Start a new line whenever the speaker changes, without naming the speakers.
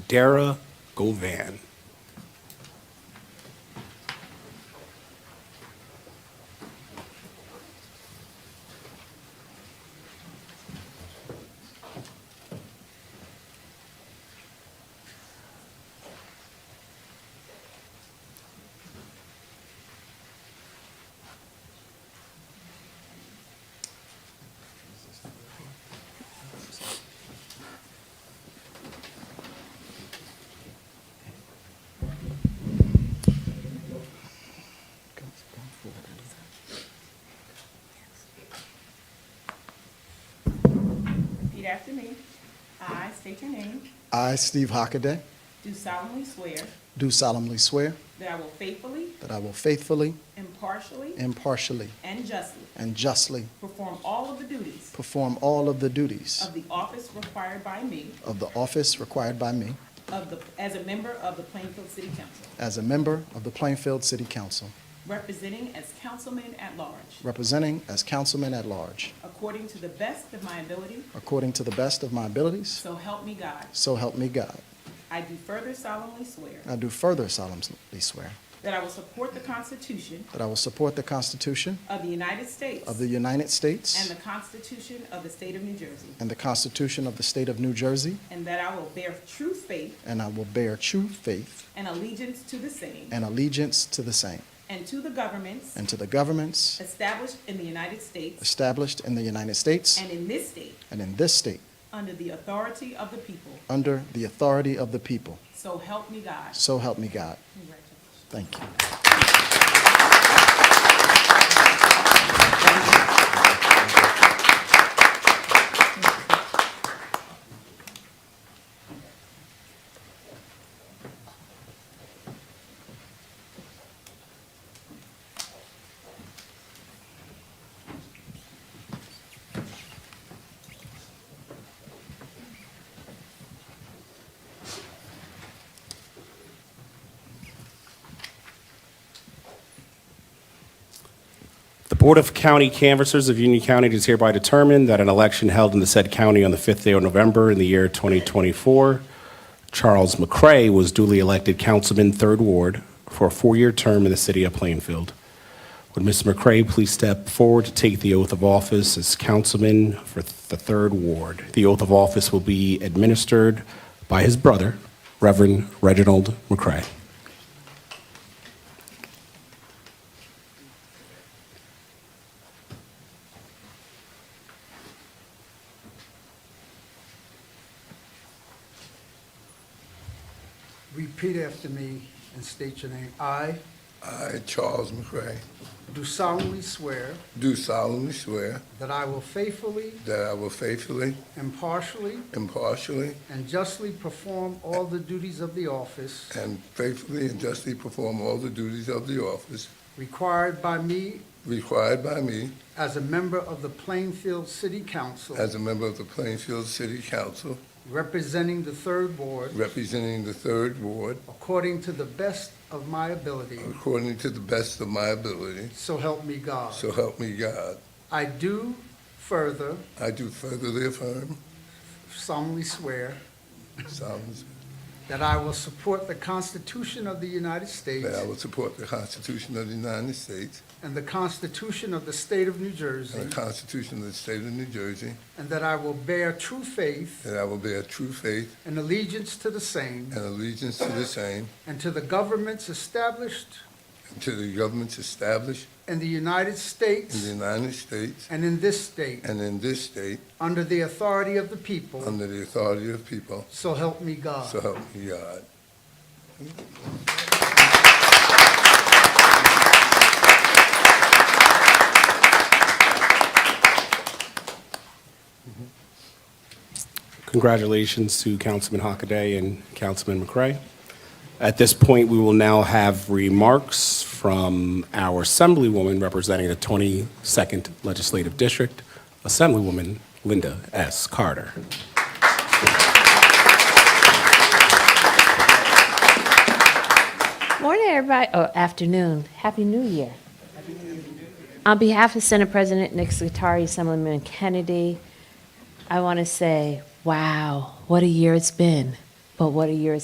Dara Govan.
Repeat after me. I state your name.
I, Steve Hockaday,
Do solemnly swear
do solemnly swear
that I will faithfully,
that I will faithfully,
impartially,
impartially,
and justly
and justly
perform all of the duties
perform all of the duties
of the office required by me
of the office required by me
of the, as a member of the Plainfield City Council,
as a member of the Plainfield City Council,
representing as councilman at large,
representing as councilman at large,
according to the best of my ability,
according to the best of my abilities,
so help me God.
so help me God.
I do further solemnly swear
I do further solemnly swear
that I will support the Constitution
that I will support the Constitution
of the United States
of the United States
and the Constitution of the State of New Jersey,
and the Constitution of the State of New Jersey,
and that I will bear true faith
and I will bear true faith
and allegiance to the same
and allegiance to the same
and to the governments
and to the governments
established in the United States
established in the United States
and in this state
and in this state,
under the authority of the people.
under the authority of the people.
So help me God.
So help me God.
Congratulations.
Thank you.
The Board of County Canvassers of Union County does hereby determine that an election held in the said county on the 5th day of November in the year 2024, Charles McCray was duly elected Councilman, 3rd Ward, for a four-year term in the city of Plainfield. Would Mr. McCray please step forward to take the oath of office as Councilman for the 3rd Ward? The oath of office will be administered by his brother, Reverend Reginald McCray.
Repeat after me and state your name. I
I, Charles McCray,
do solemnly swear
do solemnly swear
that I will faithfully,
that I will faithfully,
impartially,
impartially,
and justly perform all the duties of the office
and faithfully and justly perform all the duties of the office
required by me
required by me
as a member of the Plainfield City Council,
as a member of the Plainfield City Council,
representing the Third Ward,
representing the Third Ward,
according to the best of my ability,
according to the best of my ability,
so help me God.
so help me God.
I do further
I do furtherly affirm
solemnly swear
solemnly swear,
that I will support the Constitution of the United States
that I will support the Constitution of the United States
And the Constitution of the State of New
and
Jersey.
the Constitution of the State of New Jersey,
And that I will bear true faith
that I will bear true faith
and allegiance to the same
and allegiance to the same,
and to the governments established
To the governments established
in the United
in the
States
United States
and in this state,
and in this state,
under the authority of the people,
under the authority of the people,
so help me
so
God.
help me God.
Congratulations to Councilman Hockaday and Councilman McCray. At this point, we will now have remarks from our Assemblywoman representing the 22nd Legislative District, Assemblywoman Linda S. Carter.
Morning, everybody, or afternoon. Happy New Year. On behalf of Senate President Nick Scutari, Assemblyman Kennedy, I want to say, wow, what a year it's been, but what a year it's